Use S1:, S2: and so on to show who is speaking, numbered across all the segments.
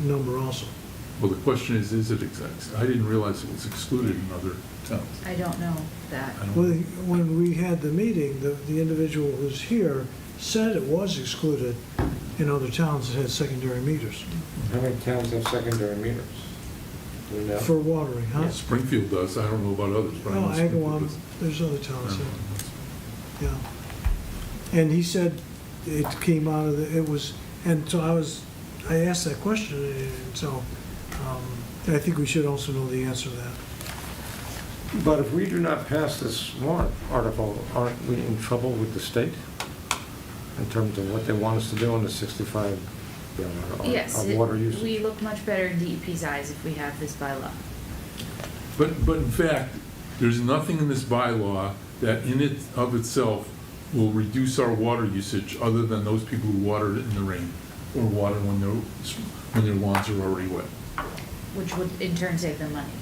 S1: number also.
S2: Well, the question is, is it exact? I didn't realize it was excluded in other towns.
S3: I don't know that.
S2: I don't-
S1: When, when we had the meeting, the, the individual who's here said it was excluded in other towns that had secondary meters
S4: How many towns have secondary meters? Do we know?
S1: for watering, huh?
S2: Springfield does, I don't know about others, but I
S1: No,
S2: know Springfield
S1: Agawam,
S2: does.
S1: there's other
S2: I
S1: towns,
S2: don't know.
S1: that- yeah. And he said it came out of, the. it was, and so I was, I asked that question, and so um, I think we should also know the answer to that.
S4: But if we do not pass this warrant article, aren't we in trouble with the state in terms of what they want us to do on the 65 gallon or-
S3: Yes,
S4: or water
S3: it-
S4: use?
S3: we look much better in DEP's eyes if we have this by law.
S2: But, but in fact, there's nothing in this bylaw that in it of itself will reduce our water usage other than those people who water it in the rain or water when their, when their lawns are already wet.
S3: which would in turn save them money.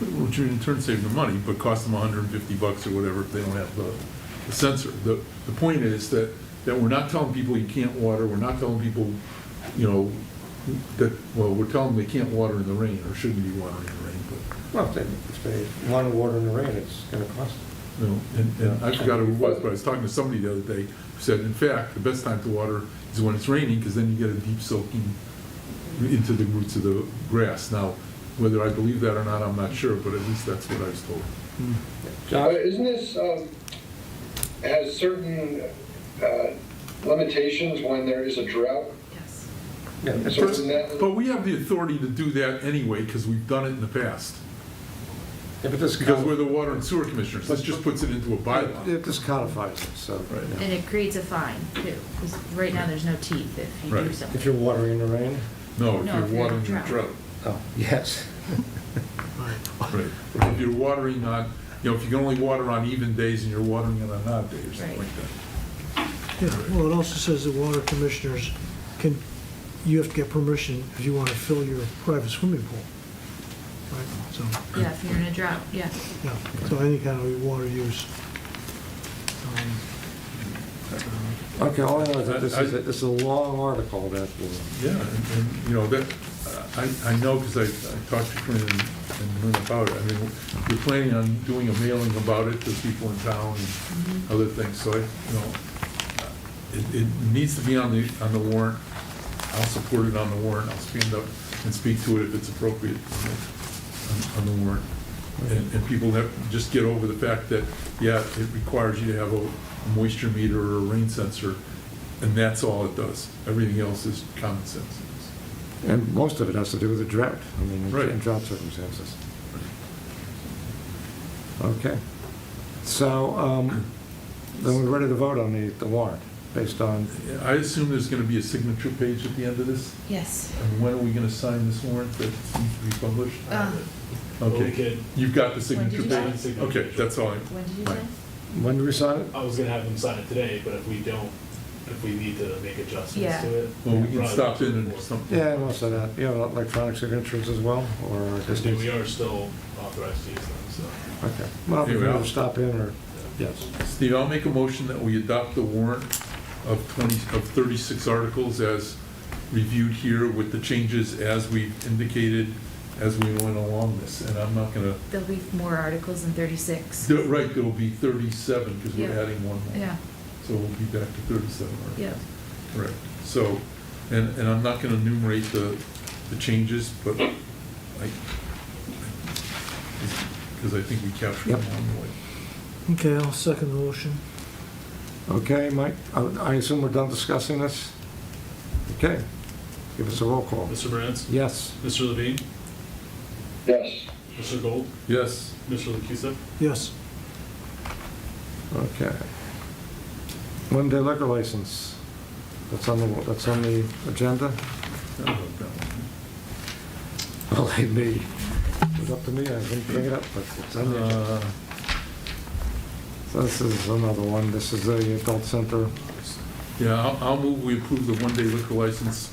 S2: Which would in turn save them money, but cost them hundred and fifty bucks or whatever if they don't have the the sensor. The, the point is that, that we're not telling people you can't water, we're not telling people, you know, that, well, we're telling them they can't water in the rain or shouldn't be watering in the rain, but
S4: Well, if they, if they want to water in the rain, it's going to cost them.
S2: You know, and, and I forgot who it was, but I was talking to somebody the other day who said, in fact, the best time to water is when it's raining, because then you get a deep soaking into the roots of the grass. Now, whether I believe that or not, I'm not sure, but at least that's what I was told.
S4: Josh?
S5: But Isn't this, um, has certain uh, limitations when there is a drought?
S3: Yes.
S4: Yeah, it's-
S5: So isn't that-
S2: But we have the authority to do that anyway, because we've done it in the past,
S4: yeah, but this
S2: because
S4: codi-
S2: we're the water and sewer commissioners. This just puts it into a bylaw.
S4: It just codifies it, so.
S2: Right.
S4: yeah.
S3: And it creates a fine too, because right now there's no teeth if you do
S2: Right.
S4: If you're
S3: something.
S4: watering in the rain?
S2: No, if
S3: No,
S2: you're
S3: if you're
S2: watering in a
S3: drought.
S2: drought.
S4: Oh, yes.
S2: Right. If you're watering on, you know, if you can only water on even days and you're watering on an odd day or something
S3: Right.
S2: like that.
S1: Yeah, well, it also says that water commissioners can, you have to get permission if you want to fill your private swimming pool. Right, so,
S3: Yeah, if you're in a drought, yeah.
S1: yeah, so any kind of water use. Um,
S4: Okay, all I know is that this
S2: I-
S4: is, a- this is a long article that will,
S2: Yeah, and, and, you know, that, I, I know, because I, I talked to Corinne and and Lynn about it, I mean, we're planning on doing a mailing about it to people in town and other things, so I, you know, it, it needs to be on the, on the warrant, I'll support it on the warrant, I'll stand up and speak to it if it's appropriate on- on the warrant. And, and people that just get over the fact that, yeah, it requires you to have a moisture meter or a rain sensor, and that's all it does, everything else is common sense.
S4: and most of it has to do with the drought, I mean,
S2: Right.
S4: in drought circumstances. Okay. So, um, then we're ready to vote on the, the warrant, based on,
S2: I assume there's gonna be a signature page at the end of this,
S3: Yes.
S2: and when are we gonna sign this warrant that needs to be published?
S3: Uh,
S2: Okay,
S6: Okay.
S2: you've got the
S3: When did
S2: signature
S3: you sign
S2: page?
S6: it?
S2: Okay, that's all I.
S3: When did you
S2: Right.
S3: say?
S4: when do we sign it?
S6: I was gonna have them sign it today, but if we don't, if we need to make adjustments
S3: Yeah.
S6: to it.
S2: Well, we can
S6: probably
S2: stop in
S6: before.
S2: and something.
S4: Yeah, most of that, you have electronic signatures as well, or
S6: Because
S4: just?
S6: we are still authorized to use them, so.
S4: Okay, well, if
S2: Anyway,
S4: you
S2: I'll-
S4: stop in, or, yes.
S2: Steve, I'll make a motion that we adopt the warrant of 20, of 36 articles as reviewed here with the changes as we indicated as we went along this. And I'm not gonna,
S3: There'll be more articles than thirty-six.
S2: there- right, there'll be 37 because we're
S3: Yeah.
S2: adding one more.
S3: Yeah,
S2: So we'll be back to 37 articles.
S3: yeah.
S2: Correct. So, and, and I'm not going to enumerate the, the changes, but I, because I think we captured them
S4: Yep.
S2: along the way.
S1: Okay, I'll second the motion.
S4: Okay, Mike, I I assume we're done discussing this? Okay, give us a roll call.
S6: Mr. Burns?
S4: Yes,
S6: Mr. Levine?
S5: Yes.
S6: Mr. Gold?
S2: Yes,
S6: Mr. Lucusa?
S1: Yes,
S4: okay. One-day liquor license, that's on the, that's on the agenda?
S2: I don't know about that one.
S4: Well, hey, me, it's up to me, I didn't bring it up, but it's on the agenda.
S2: Uh,
S4: So this is another one, this is the adult center.
S2: Yeah, I'll, I'll move, we approve the one-day liquor license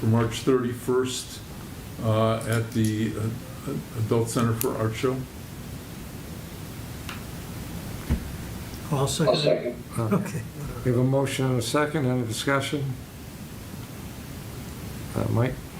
S2: for March 31st uh, at the uh, Adult Center for Art Show.
S1: I'll
S5: I'll
S1: second it.
S5: second.
S4: Okay.
S1: Okay,
S4: We have a motion and a second, any discussion? Uh, Mike?